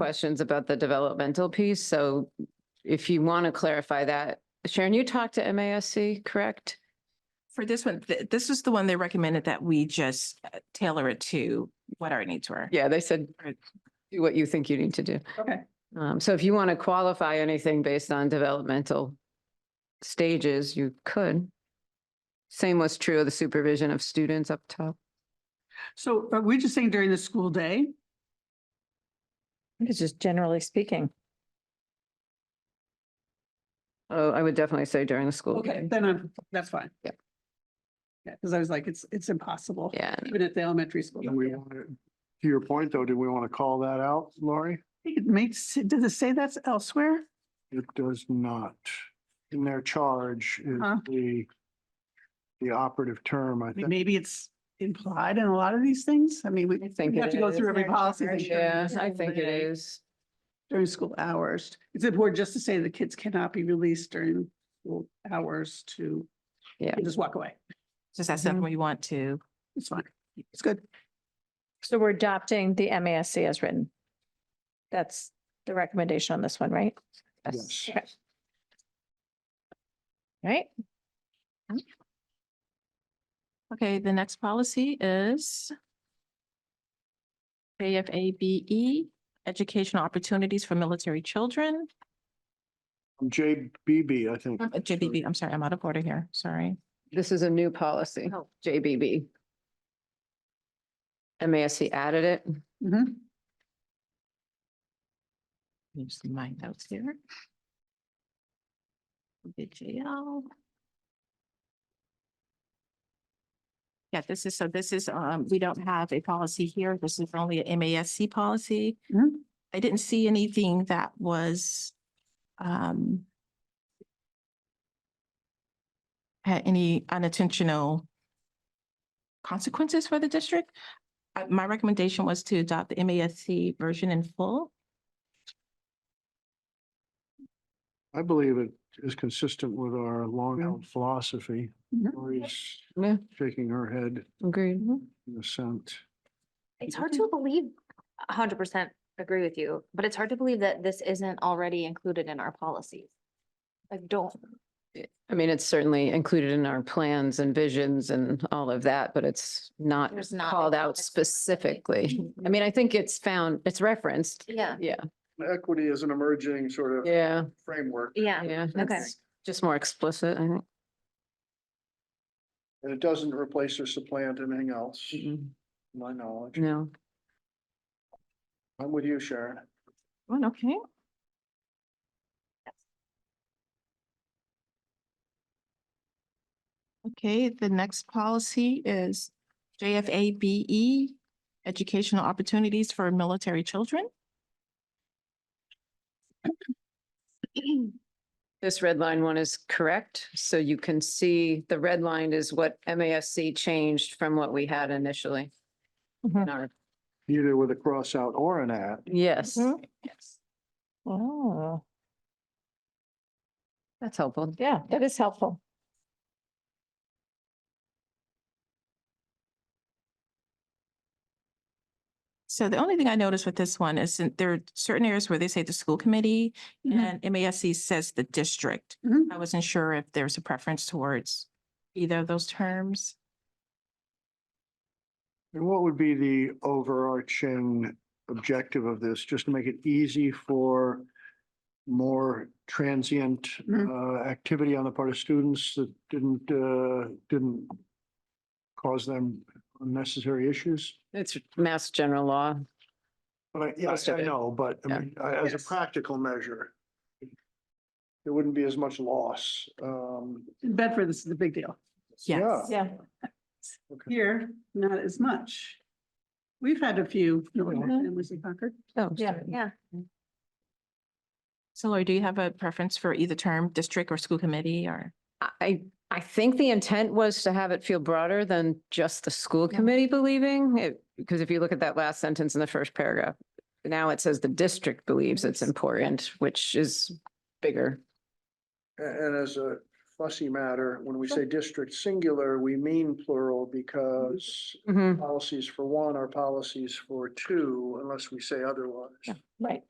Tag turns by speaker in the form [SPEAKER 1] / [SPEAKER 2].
[SPEAKER 1] questions about the developmental piece, so if you want to clarify that, Sharon, you talked to MASC, correct?
[SPEAKER 2] For this one, th- this is the one they recommended that we just uh, tailor it to what our needs were.
[SPEAKER 1] Yeah, they said,
[SPEAKER 2] Right.
[SPEAKER 1] do what you think you need to do.
[SPEAKER 2] Okay.
[SPEAKER 1] Um, so if you want to qualify anything based on developmental stages, you could. Same was true of the supervision of students up top.
[SPEAKER 3] So are we just saying during the school day?
[SPEAKER 4] It's just generally speaking.
[SPEAKER 1] Oh, I would definitely say during the school.
[SPEAKER 3] Okay,
[SPEAKER 1] day.
[SPEAKER 3] then I'm, that's fine.
[SPEAKER 1] Yeah.
[SPEAKER 3] Yeah, because I was like, it's, it's impossible,
[SPEAKER 1] Yeah,
[SPEAKER 3] even at the elementary school.
[SPEAKER 5] Do we want to, to your point though, do we want to call that out, Lori?
[SPEAKER 3] I think It makes, does it say that's elsewhere?
[SPEAKER 5] It does not. In their charge is
[SPEAKER 3] Huh.
[SPEAKER 5] the, the operative term, I
[SPEAKER 3] I mean,
[SPEAKER 5] think.
[SPEAKER 3] Maybe it's implied in a lot of these things. I mean, we
[SPEAKER 1] I think
[SPEAKER 3] we have
[SPEAKER 1] it
[SPEAKER 3] to go through
[SPEAKER 1] is.
[SPEAKER 3] every policy thing
[SPEAKER 1] yeah, I think it is.
[SPEAKER 3] during school hours. It's important just to say the kids cannot be released during school hours to
[SPEAKER 1] Yeah.
[SPEAKER 3] and just walk away.
[SPEAKER 2] Just that's
[SPEAKER 3] Mm-hmm.
[SPEAKER 2] something
[SPEAKER 1] Mhm.
[SPEAKER 2] we want to.
[SPEAKER 3] It's fine. It's good.
[SPEAKER 4] So we're adopting the MASC as written. That's the recommendation on this one, right?
[SPEAKER 5] Yes.
[SPEAKER 4] Okay. Right?
[SPEAKER 2] Okay, the next policy is JFABE, E, Educational Opportunities for Military Children.
[SPEAKER 5] JBB, I think.
[SPEAKER 2] Uh, JBB, I'm sorry, I'm out of order here, sorry.
[SPEAKER 1] This is a new policy,
[SPEAKER 6] Oh.
[SPEAKER 1] JBB. MASC added it.
[SPEAKER 3] Mhm.
[SPEAKER 2] Let me just see my notes here. The JL. Yeah, this is, so this is, um, we don't have a policy here. This is only a MASC policy.
[SPEAKER 3] Mhm.
[SPEAKER 2] I didn't see anything that was, um, had any unintentional consequences for the district. Uh, my recommendation was to adopt the MASC version in full.
[SPEAKER 5] I believe it is consistent with our long-held philosophy.
[SPEAKER 3] Mhm.
[SPEAKER 5] Lori's
[SPEAKER 1] Mm-hmm. Yeah,
[SPEAKER 5] shaking her head
[SPEAKER 1] agreed.
[SPEAKER 5] in assent.
[SPEAKER 6] It's hard to believe, a hundred percent agree with you, but it's hard to believe that this isn't already included in our policies. Like, don't,
[SPEAKER 1] I mean, it's certainly included in our plans and visions and all of that, but it's not
[SPEAKER 6] There's not a
[SPEAKER 1] called out
[SPEAKER 6] policy
[SPEAKER 1] specifically. I mean, I think it's found, it's referenced.
[SPEAKER 6] yeah,
[SPEAKER 1] Yeah,
[SPEAKER 5] Equity is an emerging sort
[SPEAKER 1] yeah,
[SPEAKER 5] framework.
[SPEAKER 6] yeah,
[SPEAKER 1] yeah. It's Just more explicit, I think.
[SPEAKER 5] And it doesn't replace or supplant anything else,
[SPEAKER 1] Mm-mm,
[SPEAKER 5] my knowledge.
[SPEAKER 1] No,
[SPEAKER 5] I'm with you, Sharon.
[SPEAKER 2] One, okay. Okay, the next policy is JFABE, E, Educational Opportunities for Military Children.
[SPEAKER 1] this red line one is correct. So you can see the red line is what MASC changed from what we had initially.
[SPEAKER 6] Mm-hmm.
[SPEAKER 2] Mhm.
[SPEAKER 1] in our-
[SPEAKER 5] Either with a cross out or an at.
[SPEAKER 1] Yes,
[SPEAKER 6] Mm-hmm.
[SPEAKER 4] Mm-hmm.
[SPEAKER 2] Mhm.
[SPEAKER 4] Oh,
[SPEAKER 1] that's helpful.
[SPEAKER 4] yeah, that is helpful.
[SPEAKER 2] So the only thing I noticed with this one is that there are certain areas where they say the school committee
[SPEAKER 4] Mm-hmm.
[SPEAKER 2] and MASC says the district.
[SPEAKER 3] Mhm.
[SPEAKER 2] I wasn't sure if there was a preference towards either of those terms.
[SPEAKER 5] And what would be the overarching objective of this? Just to make it easy for more transient
[SPEAKER 1] Mm-hmm.
[SPEAKER 3] Mhm.
[SPEAKER 5] uh, activity on the part of students that didn't, uh, didn't cause them unnecessary issues?
[SPEAKER 1] It's mass general law.
[SPEAKER 5] But I, yes,
[SPEAKER 1] Most of
[SPEAKER 5] I
[SPEAKER 1] it.
[SPEAKER 5] know, but I
[SPEAKER 1] Yeah.
[SPEAKER 5] mean, I- as a
[SPEAKER 3] Yes.
[SPEAKER 5] practical measure, there wouldn't be as much loss. Um,
[SPEAKER 3] In Bedford, this is a big deal.
[SPEAKER 2] Yes.
[SPEAKER 4] Yeah.
[SPEAKER 5] okay.
[SPEAKER 3] Here, not as much. We've had a few, no,
[SPEAKER 2] Mhm.
[SPEAKER 3] and was in Concord.
[SPEAKER 1] Oh,
[SPEAKER 4] Yeah.
[SPEAKER 1] sorry.
[SPEAKER 6] yeah.
[SPEAKER 2] So Lori, do you have a preference for either term, district or school committee or?
[SPEAKER 1] I, I think the intent was to have it feel broader than just the school committee believing it, because if you look at that last sentence in the first paragraph, now it says the district believes it's important, which is bigger.
[SPEAKER 5] A- And as a fussy matter. When we say district singular, we mean plural because
[SPEAKER 1] Mhm.
[SPEAKER 5] policies for one are policies for two unless we say otherwise.
[SPEAKER 4] Right.